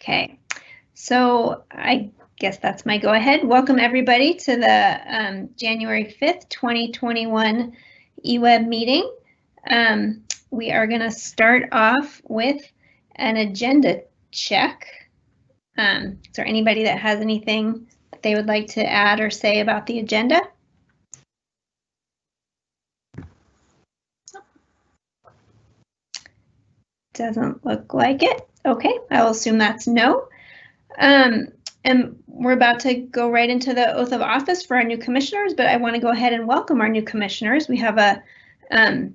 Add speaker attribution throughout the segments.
Speaker 1: Okay, so I guess that's my go-ahead. Welcome, everybody, to the um, January 5th, 2021 eWeb E meeting. Um, We are going to start off with an agenda check. Um, Is there anybody that has anything that they would like to add or say about the agenda? Doesn't look like it. Okay, I will assume that's no. Um, and we're about to go right into the oath of office for our new commissioners, but I want to go ahead and welcome our new commissioners. We have a um,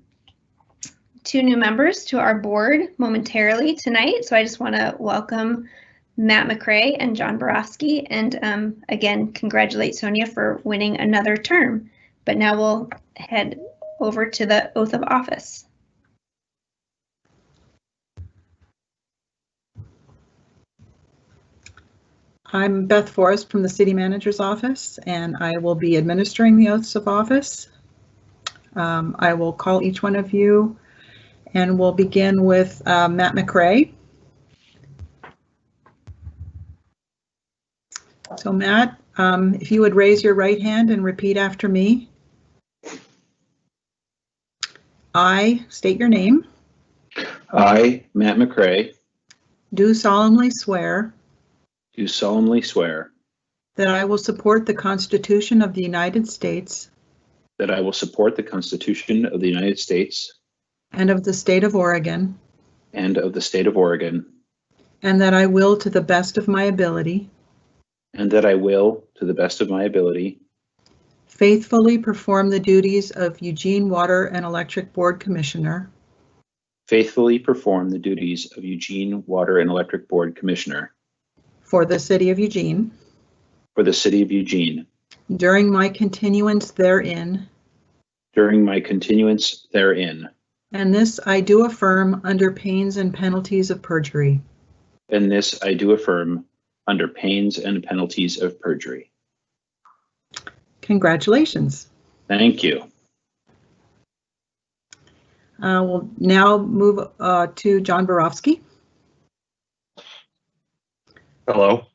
Speaker 1: two new members to our board momentarily tonight, so I just want to welcome Matt McRae and John Borofsky, and um, again, congratulate Sonia for winning another term. But now we'll head over to the oath of office.
Speaker 2: I'm Beth Forrest from the City Manager's Office, and I will be administering the oaths of office. Um, I will call each one of you, and we'll begin with uh, Matt McRae. So Matt, um, if you would raise your right hand and repeat after me. I state your name,
Speaker 3: I, Matt McRae,
Speaker 2: do solemnly swear
Speaker 3: do solemnly swear
Speaker 2: that I will support the Constitution of the United States
Speaker 3: that I will support the Constitution of the United States
Speaker 2: and of the State of Oregon,
Speaker 3: and of the State of Oregon,
Speaker 2: And that I will, to the best of my ability,
Speaker 3: and that I will, to the best of my ability,
Speaker 2: faithfully perform the duties of Eugene Water and Electric Board Commissioner
Speaker 3: faithfully perform the duties of Eugene Water and Electric Board Commissioner
Speaker 2: for the City of Eugene
Speaker 3: for the City of Eugene
Speaker 2: during my continuance therein,
Speaker 3: during my continuance therein,
Speaker 2: and this I do affirm under pains and penalties of perjury.
Speaker 3: and this I do affirm under pains and penalties of perjury.
Speaker 2: Congratulations.
Speaker 3: Thank you.
Speaker 2: Uh, We'll now move uh, to John Borofsky.
Speaker 4: Hello.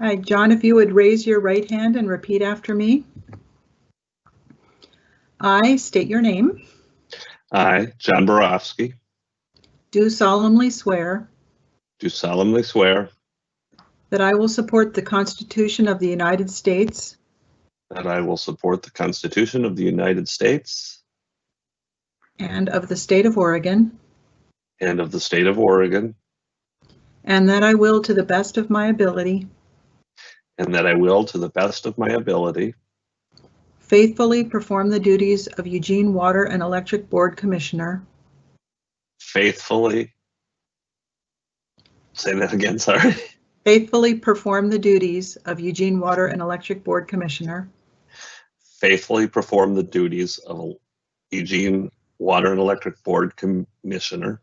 Speaker 2: Hi, John, if you would raise your right hand and repeat after me. I state your name,
Speaker 4: I, John Borofsky,
Speaker 2: do solemnly swear
Speaker 4: do solemnly swear
Speaker 2: That I will support the Constitution of the United States
Speaker 4: that I will support the Constitution of the United States
Speaker 2: and of the State of Oregon,
Speaker 4: and of the State of Oregon,
Speaker 2: and that I will, to the best of my ability,
Speaker 4: and that I will, to the best of my ability,
Speaker 2: faithfully perform the duties of Eugene Water and Electric Board Commissioner,
Speaker 4: faithfully. Say that again, sorry.
Speaker 2: faithfully perform the duties of Eugene Water and Electric Board Commissioner
Speaker 4: Faithfully perform the duties of Eugene Water and Electric Board Commissioner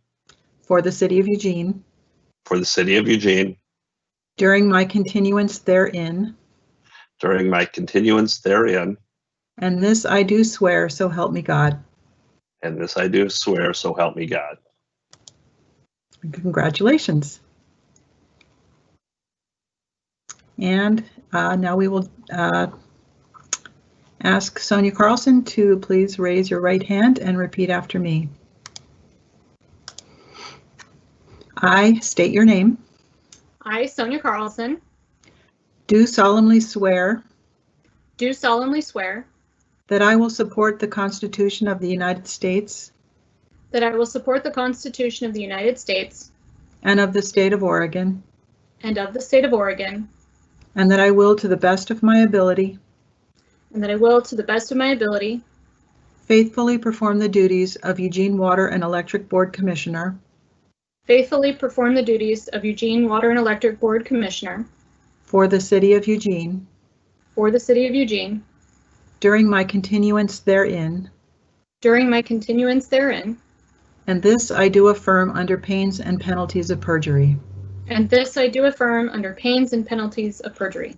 Speaker 2: for the City of Eugene
Speaker 4: for the City of Eugene
Speaker 2: during my continuance therein,
Speaker 4: during my continuance therein,
Speaker 2: and this I do swear, so help me God.
Speaker 4: and this I do swear, so help me God.
Speaker 2: Congratulations. And uh, now we will uh, ask Sonia Carlson to please raise your right hand and repeat after me. I state your name,
Speaker 5: I, Sonia Carlson,
Speaker 2: do solemnly swear
Speaker 5: do solemnly swear
Speaker 2: that I will support the Constitution of the United States
Speaker 5: that I will support the Constitution of the United States
Speaker 2: and of the State of Oregon,
Speaker 5: and of the State of Oregon,
Speaker 2: and that I will, to the best of my ability,
Speaker 5: and that I will, to the best of my ability,
Speaker 2: faithfully perform the duties of Eugene Water and Electric Board Commissioner
Speaker 5: faithfully perform the duties of Eugene Water and Electric Board Commissioner
Speaker 2: for the City of Eugene
Speaker 5: for the City of Eugene
Speaker 2: during my continuance therein,
Speaker 5: during my continuance therein,
Speaker 2: and this I do affirm under pains and penalties of perjury.
Speaker 5: and this I do affirm under pains and penalties of perjury.